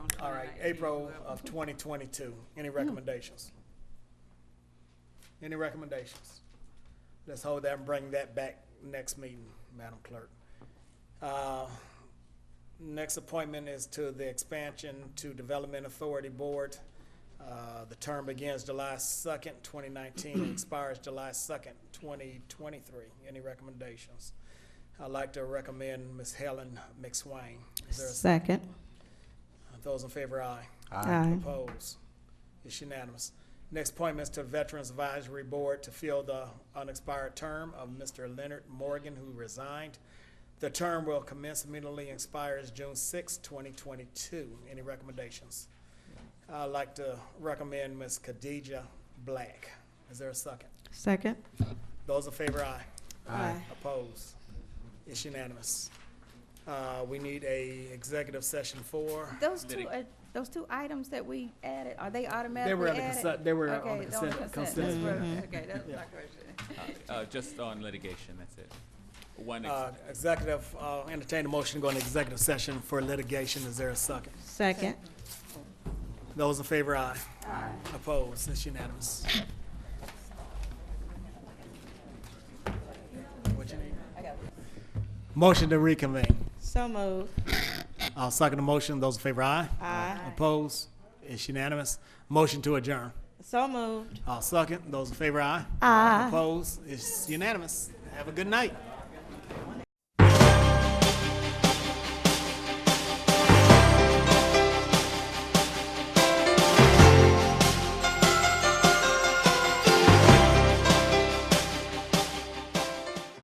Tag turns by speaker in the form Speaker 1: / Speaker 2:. Speaker 1: All right, April uh, of twenty twenty-two. Any recommendations? Any recommendations? Let's hold that and bring that back next meeting, Madam Clerk. Uh, Next appointment is to the Expansion to Development Authority Board. Uh, The term begins July second, twenty nineteen, and expires July second, twenty twenty-three. Any recommendations? I'd like to recommend Ms. Helen McSwain. Is there a
Speaker 2: Second.
Speaker 1: those in favor, aye.
Speaker 2: Aye.
Speaker 1: Opposed? It's unanimous. Next appointment is to Veterans Advisory Board to fill the unexpired term of Mr. Leonard Morgan, who resigned. The term will commence immediately and expires June 6, 2022. Any recommendations? I'd like to recommend Ms. Khadija Black. Is there a second?
Speaker 2: Second.
Speaker 1: Those in favor, aye.
Speaker 2: Aye.
Speaker 1: Opposed? It's unanimous. Uh, We need a executive session for.
Speaker 3: Those two, are- those two items that we added, are they
Speaker 1: They
Speaker 3: automatically
Speaker 1: were on the
Speaker 3: added?
Speaker 1: consent, they were
Speaker 3: Okay,
Speaker 1: on the
Speaker 3: they're on the
Speaker 1: consent,
Speaker 3: consent,
Speaker 1: consent.
Speaker 3: that's right. Okay, that's my question.
Speaker 4: Uh, just on litigation, that's it. One, ex-
Speaker 1: Uh, Executive, uh, entertain a motion to go into executive session for litigation. Is there a second?
Speaker 2: Second.
Speaker 1: Those in favor, aye. Aye. Opposed? It's unanimous. What you need? Motion to reconvene.
Speaker 2: So moved.
Speaker 1: I'll second the motion. Those in favor, aye.
Speaker 2: Aye.
Speaker 1: Opposed? It's unanimous. Motion to adjourn.
Speaker 2: So moved.
Speaker 1: I'll second. Those in favor, aye. Aye. Opposed? It's unanimous. Have a good night.